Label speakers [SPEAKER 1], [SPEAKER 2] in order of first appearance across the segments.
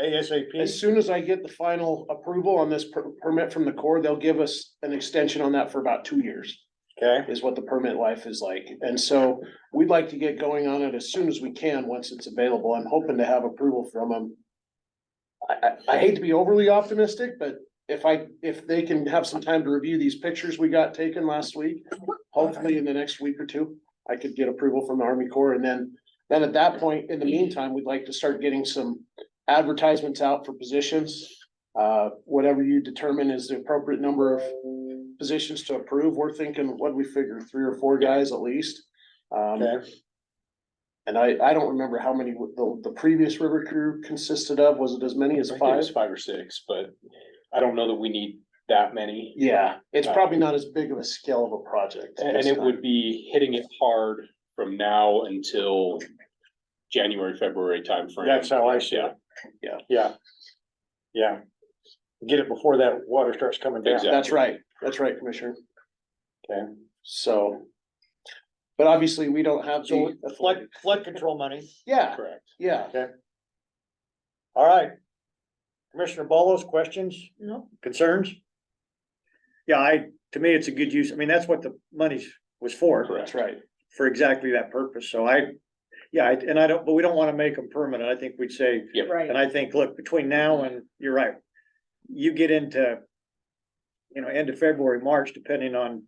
[SPEAKER 1] ASAP?
[SPEAKER 2] As soon as I get the final approval on this per- permit from the Corps, they'll give us an extension on that for about two years,
[SPEAKER 1] Okay,
[SPEAKER 2] is what the permit life is like. And so we'd like to get going on it as soon as we can, once it's available. I'm hoping to have approval from them. I, I, I hate to be overly optimistic, but if I, if they can have some time to review these pictures we got taken last week, hopefully in the next week or two, I could get approval from the Army Corps. And then, then at that point, in the meantime, we'd like to start getting some advertisements out for positions. Uh, whatever you determine is the appropriate number of positions to approve. We're thinking, what do we figure, three or four guys at least? Um,
[SPEAKER 1] okay,
[SPEAKER 2] and I, I don't remember how many the, the previous river crew consisted of. Was it as many as
[SPEAKER 1] I think it
[SPEAKER 2] five?
[SPEAKER 1] was five or six, but I don't know that we need that many.
[SPEAKER 2] Yeah, it's probably not as big of a scale of a project.
[SPEAKER 1] And and
[SPEAKER 2] this
[SPEAKER 1] it
[SPEAKER 2] time.
[SPEAKER 1] would be hitting it hard from now until January, February timeframe.
[SPEAKER 3] That's how I see it.
[SPEAKER 2] Yeah.
[SPEAKER 3] Yeah. Yeah. Get it before that water starts coming down.
[SPEAKER 1] Exactly.
[SPEAKER 2] That's right. That's right, Commissioner.
[SPEAKER 1] Okay.
[SPEAKER 2] So. But obviously, we don't have
[SPEAKER 3] So
[SPEAKER 4] uh,
[SPEAKER 2] the.
[SPEAKER 3] it's flood, flood control money.
[SPEAKER 2] Yeah,
[SPEAKER 1] Correct.
[SPEAKER 2] yeah.
[SPEAKER 3] All right. Commissioner Ballos, questions? No. Concerns?
[SPEAKER 4] Yeah, I, to me, it's a good use. I mean, that's what the money was for,
[SPEAKER 1] Correct.
[SPEAKER 2] That's right.
[SPEAKER 4] for exactly that purpose. So I, yeah, I- and I don't, but we don't want to make them permanent. I think we'd say,
[SPEAKER 5] Right.
[SPEAKER 4] and I think, look, between now and, you're right. You get into, you know, end of February, March, depending on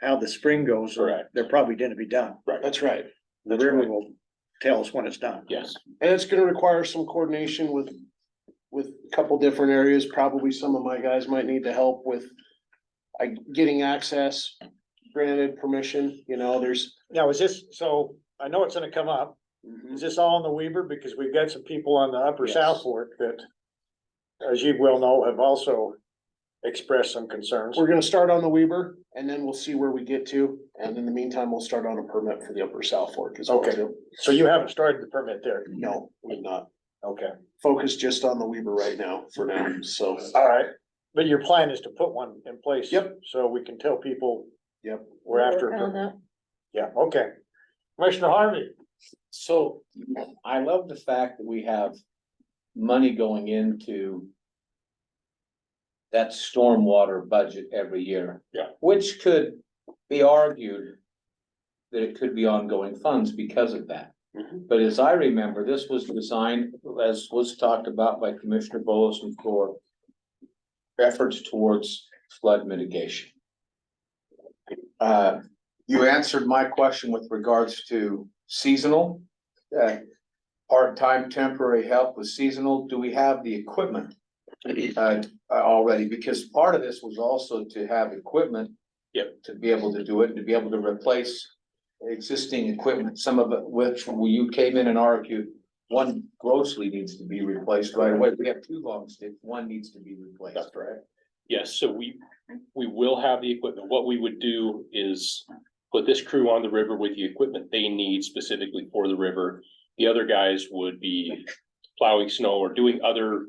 [SPEAKER 4] how the spring goes.
[SPEAKER 1] Correct.
[SPEAKER 4] They're probably gonna be done.
[SPEAKER 2] That's right.
[SPEAKER 4] The
[SPEAKER 1] That's
[SPEAKER 4] river
[SPEAKER 1] right.
[SPEAKER 4] will tell us when it's done.
[SPEAKER 1] Yes,
[SPEAKER 2] And it's gonna require some coordination with, with a couple different areas, probably some of my guys might need to help with. uh getting access, granted permission, you know, there's.
[SPEAKER 3] Now, is this, so I know it's gonna come up.
[SPEAKER 1] Mm-hmm.
[SPEAKER 3] Is this all in the Weaver? Because we've got some people on the Upper
[SPEAKER 2] Yes.
[SPEAKER 3] South Fork that, as you well know, have also expressed some concerns.
[SPEAKER 2] We're gonna start on the Weaver and then we'll see where we get to, and in the meantime, we'll start on a permit for the Upper South Fork as well
[SPEAKER 3] Okay.
[SPEAKER 2] too.
[SPEAKER 3] So you haven't started the permit there?
[SPEAKER 2] No, we're not,
[SPEAKER 3] Okay,
[SPEAKER 2] focus just on the Weaver right now, for now, so,
[SPEAKER 3] all right. But your plan is to put one in place?
[SPEAKER 2] Yep.
[SPEAKER 3] So we can tell people
[SPEAKER 2] yep.
[SPEAKER 3] we're after. a
[SPEAKER 5] Work on
[SPEAKER 3] permit.
[SPEAKER 5] that.
[SPEAKER 3] Yeah, okay. Commissioner Harvey?
[SPEAKER 6] So I love the fact that we have money going into that stormwater budget every year.
[SPEAKER 1] Yeah.
[SPEAKER 6] Which could be argued that it could be ongoing funds because of that.
[SPEAKER 2] Mhm.
[SPEAKER 6] But as I remember, this was designed, as was talked about by Commissioner Bolson for efforts towards flood mitigation. Uh, you answered my question with regards to seasonal. uh, Part-time temporary help with seasonal, do we have the equipment? uh, already, because part of this was also to have equipment.
[SPEAKER 1] Yep.
[SPEAKER 6] To be able to do it, and to be able to replace existing equipment, some of it which you came in and argued. One grossly needs to be replaced right away, we have two long sticks, one needs to be replaced, right?
[SPEAKER 1] yes, so we, we will have the equipment. What we would do is put this crew on the river with the equipment they need specifically for the river. The other guys would be plowing snow or doing uh, other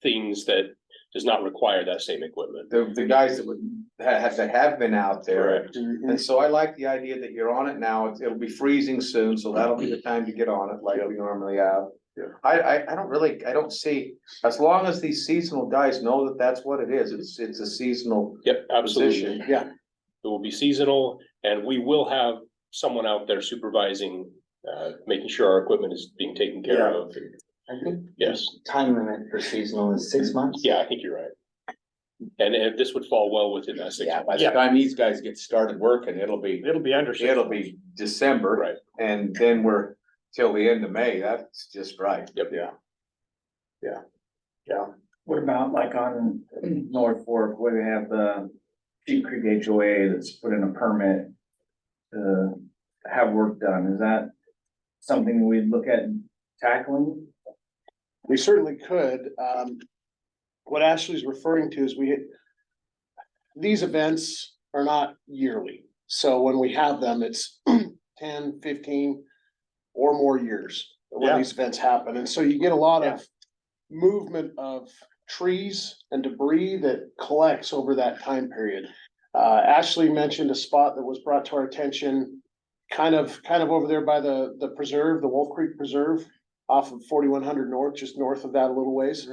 [SPEAKER 1] things that does not require that same equipment.
[SPEAKER 6] The, the guys that would, have, that have been out there,
[SPEAKER 1] Correct.
[SPEAKER 6] and so I like the idea that you're on it now, It's- it'll be freezing soon, so that'll be the time to get on it like we normally have.
[SPEAKER 3] Yeah.
[SPEAKER 6] I, I, I don't really, I don't see, as long as these seasonal guys know that that's what it is, it's, it's a seasonal
[SPEAKER 1] Yep, absolutely.
[SPEAKER 6] position.
[SPEAKER 1] It will be seasonal and we will have someone out there supervising, uh, making sure our equipment is being taken care of.
[SPEAKER 7] I think
[SPEAKER 1] Yes,
[SPEAKER 7] time limit for seasonal is six months.
[SPEAKER 1] yeah, I think you're right. And, and this would fall well within that six.
[SPEAKER 6] Yeah,
[SPEAKER 1] months.
[SPEAKER 6] by the time these guys get started working, it'll be,
[SPEAKER 3] It'll be under. six
[SPEAKER 6] it'll
[SPEAKER 3] months.
[SPEAKER 6] be December.
[SPEAKER 1] Right.
[SPEAKER 6] And then we're till the end of May, that's just right.
[SPEAKER 1] Yep.
[SPEAKER 6] Yeah.
[SPEAKER 7] What about like on North Fork, where they have the Sheep Creek HOA that's put in a permit to have work done? Is that something we'd look at tackling?
[SPEAKER 2] We certainly could. Um, what Ashley's referring to is we, these events are not yearly. So when we have them, it's 10, 15, or more years when
[SPEAKER 3] Yeah.
[SPEAKER 2] these events happen. And so you get a lot
[SPEAKER 3] Yeah.
[SPEAKER 2] of movement of trees and debris that collects over that time period. Uh, Ashley mentioned a spot that was brought to our attention, kind of, kind of over there by the, the preserve, the Wolf Creek Preserve off of forty-one hundred north, just north of that a little ways.